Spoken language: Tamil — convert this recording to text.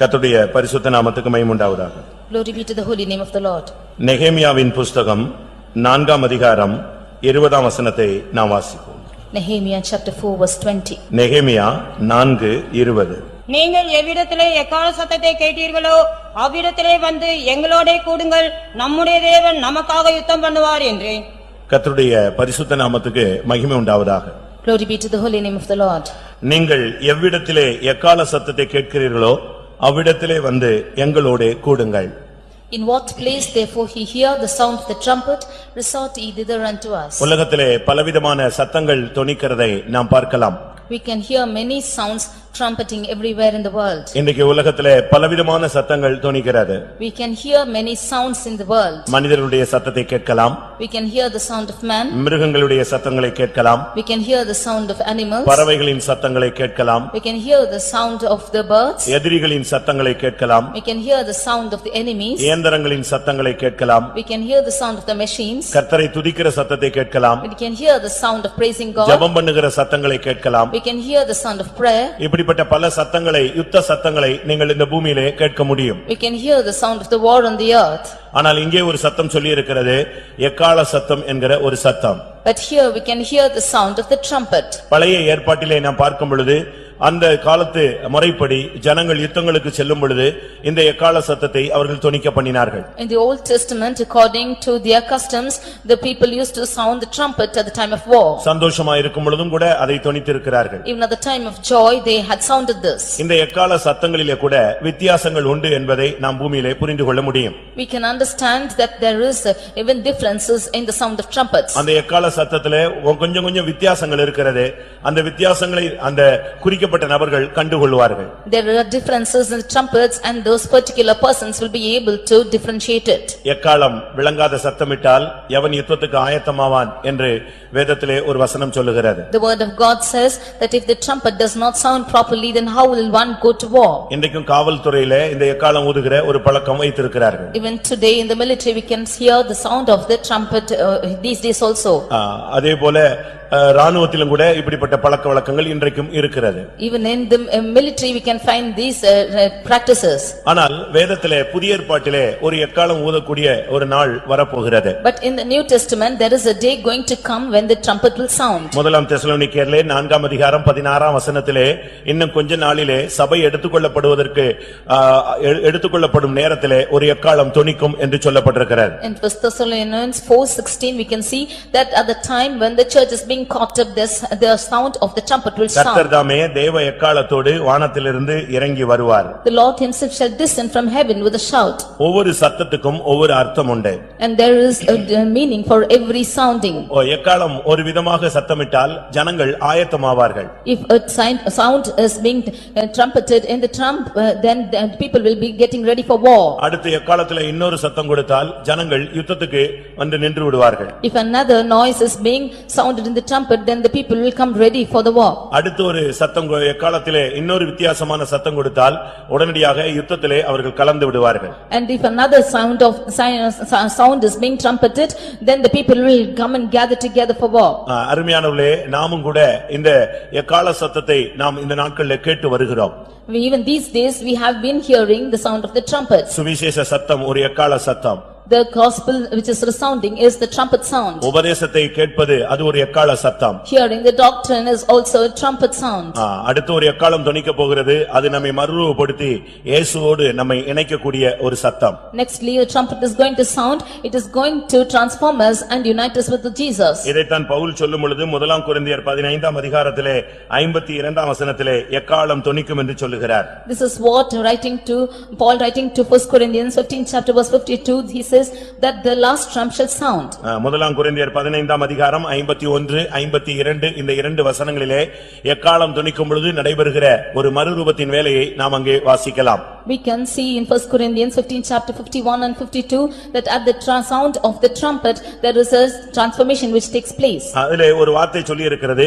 கர்த்தருடைய பரிசுத்த நாமத்துக்கு மகிமை உண்டாவதாக Glory be to the holy name of the Lord. நெகேமியாவின் புஸ்தகம் நான்காம் அதிகாரம் இருபதாம் வசனத்தை நாம் வாசிப்போம் Nehemiah chapter 4 verse 20. நெகேமியா நான்கு இருபது நீங்கள் எவ்விடத்திலே எக்கால சத்தத்தை கேட்டீர்களோ அவ்விடத்திலே வந்து எங்களோடே கூடுங்கள் நம்முடைய தேவன் நமக்காக யுத்தம் பண்ணுவார் என்றேன் கர்த்தருடைய பரிசுத்த நாமத்துக்கு மகிமை உண்டாவதாக Glory be to the holy name of the Lord. நீங்கள் எவ்விடத்திலே எக்கால சத்தத்தை கேட்கிறீர்களோ அவ்விடத்திலே வந்து எங்களோடே கூடுங்கள் In what place therefore he hear the sound of the trumpet, resort ye thither unto us. உலகத்திலே பலவிதமான சத்தங்கள் தொனிக்கிறதை நாம் பார்க்கலாம் We can hear many sounds trumpeting everywhere in the world. இன்றைக்கு உலகத்திலே பலவிதமான சத்தங்கள் தொனிக்கிறது We can hear many sounds in the world. மனிதர்களுடைய சத்தத்தை கேட்கலாம் We can hear the sound of man, மிருகங்களுடைய சத்தங்களை கேட்கலாம் we can hear the sound of animals, பறவைகளின் சத்தங்களை கேட்கலாம் we can hear the sound of the birds, எதிரிகளின் சத்தங்களை கேட்கலாம் we can hear the sound of the enemies, இயந்திரங்களின் சத்தங்களை கேட்கலாம் we can hear the sound of the machines, கர்த்தரை துதிக்கிற சத்தத்தை கேட்கலாம் we can hear the sound of praising God, ஜெபம் பண்ணுகிற சத்தங்களை கேட்கலாம் we can hear the sound of prayer, இப்படிப்பட்ட பல சத்தங்களை யுத்த சத்தங்களை நீங்கள் இந்த பூமியிலே கேட்க முடியும் we can hear the sound of the war on the earth. ஆனால் இங்கே ஒரு சத்தம் சொல்லியிருக்கிறது எக்கால சத்தம் என்கிற ஒரு சத்தம் But here we can hear the sound of the trumpet. பழைய ஏற்பாட்டிலே நாம் பார்க்கும் பொழுது அந்த காலத்து முறைப்படி ஜனங்கள் யுத்தங்களுக்கு செல்லும் பொழுது இந்த எக்கால சத்தத்தை அவர்கள் துணிக்க பண்ணினார்கள் In the Old Testament, according to their customs, the people used to sound the trumpet at the time of war. சந்தோஷமா இருக்கும் பொழுதும் கூட அதை தொனித்திருக்கிறார்கள் Even at the time of joy, they had sounded this. இந்த எக்கால சத்தங்களிலே கூட வித்தியாசங்கள் உண்டு என்பதை நாம் பூமியிலே புரிந்து கொள்ள முடியும் We can understand that there is uh, even differences in the sound of trumpets. அந்த எக்கால சத்தத்திலே ஒ- கொஞ்சம் கொஞ்சம் வித்தியாசங்கள் இருக்கிறது அந்த வித்தியாசங்களை அந்த குறிக்கப்பட்ட நபர்கள் கண்டுகொள்வார்கள் There are differences in the trumpets and those particular persons will be able to differentiate it. எக்காலம் விளங்காத சத்தமிட்டால் எவன் யுத்தத்துக்கு ஆயத்தமாவான் என்று வேதத்திலே ஒரு வசனம் சொல்லுகிறது The word of God says that if the trumpet does not sound properly, then how will one go to war? இன்றைக்கும் காவல்துறையிலே இந்த எக்காலம் ஊதுகிற ஒரு பழக்கம் வைத்திருக்கிறார்கள் Even today in the military, we can hear the sound of the trumpet uh, these days also. ஆ, அதே போல ஆ, ராணுவத்திலும் கூட இப்படிப்பட்ட பழக்க வழக்கங்கள் இன்றைக்கும் இருக்கிறது Even in the uh, military, we can find these uh, uh, practices. ஆனால் வேதத்திலே புதிய ஏற்பாட்டிலே ஒரு எக்காலம் ஊதக்கூடிய ஒரு நாள் வரப்போகிறது But in the New Testament, there is a day going to come when the trumpet will sound. முதலாம் தெசலோனிக்கேர்லே நான்காம் அதிகாரம் பதினாறாம் வசனத்திலே இன்னும் கொஞ்ச நாளிலே சபை எடுத்துக்கொள்ளப்படுவதற்கு ஆ, எ- எடுத்துக்கொள்ளப்படும் நேரத்திலே ஒரு எக்காலம் தொனிக்கும் என்று சொல்லப்பட்டிருக்கிறது In first Thessalonians four sixteen, we can see that at the time when the church is being caught up, this, the sound of the trumpet will sound. கர்த்தர் தாமே தேவ எக்காலத்தோடு வானத்திலிருந்து இறங்கி வருவார் The Lord himself shall descend from heaven with a shout, ஒவ்வொரு சத்தத்துக்கும் ஒவ்வொரு அர்த்தம் உண்டு and there is a a meaning for every sounding. ஓ, எக்காலம் ஒரு விதமாக சத்தமிட்டால் ஜனங்கள் ஆயத்தமாவார்கள் If a sign- a sound is being uh, trumpeted in the trump, uh, then the people will be getting ready for war. அடுத்து எக்காலத்துல இன்னொரு சத்தம் கொடுத்தால் ஜனங்கள் யுத்தத்துக்கு வந்து நின்று விடுவார்கள் If another noise is being sounded in the trumpet, then the people will come ready for the war. அடுத்து ஒரு சத்தம் கொ- எக்காலத்திலே இன்னொரு வித்தியாசமான சத்தம் கொடுத்தால் உடனடியாக யுத்தத்திலே அவர்கள் கலந்து விடுவார்கள் And if another sound of, si- si- uh, sound is being trumpeted, then the people will come and gather together for war. ஆ, அருமையானவர்களே நாமும் கூட இந்த எக்கால சத்தத்தை நாம் இந்த நாட்களில் கேட்டு வருகிறோம் We- Even these days, we have been hearing the sound of the trumpets. சுவிசேஷ சத்தம் ஒரு எக்கால சத்தம் The gospel which is resounding is the trumpet sound. உபதேசத்தை கேட்பது அது ஒரு எக்கால சத்தம் Hearing the doctrine is also a trumpet sound. ஆ, அடுத்து ஒரு எக்காலம் தொனிக்க போகிறது அது நம்மை மறுரூபப்படுத்தி இயேசுவோடு நம்மை இணைக்கக்கூடிய ஒரு சத்தம் Nextly, a trumpet is going to sound, it is going to transform us and unite us with Jesus. இதைத்தான் பவுல் சொல்லும் பொழுது முதலாம் குருந்தியர் பதினைந்தாம் அதிகாரத்திலே ஐம்பத்தி இரண்டாம் வசனத்திலே எக்காலம் தொனிக்கும் என்று சொல்லுகிறார் This is what writing to, Paul writing to first Corinthians fifteen chapter verse fifty-two, he says that the last trump shall sound. ஆ, முதலாம் குருந்தியர் பதினைந்தாம் அதிகாரம் ஐம்பத்தி ஒன்று ஐம்பத்தி இரண்டு இந்த இரண்டு வசனங்களிலே எக்காலம் தொனிக்கும் பொழுது நடைபெறுகிற ஒரு மறுரூபத்தின் வேலையை நாம் அங்கே வாசிக்கலாம் We can see in first Corinthians fifteen chapter fifty-one and fifty-two that at the tra- sound of the trumpet, there is a transformation which takes place. அதிலே ஒரு வார்த்தை சொல்லியிருக்கிறது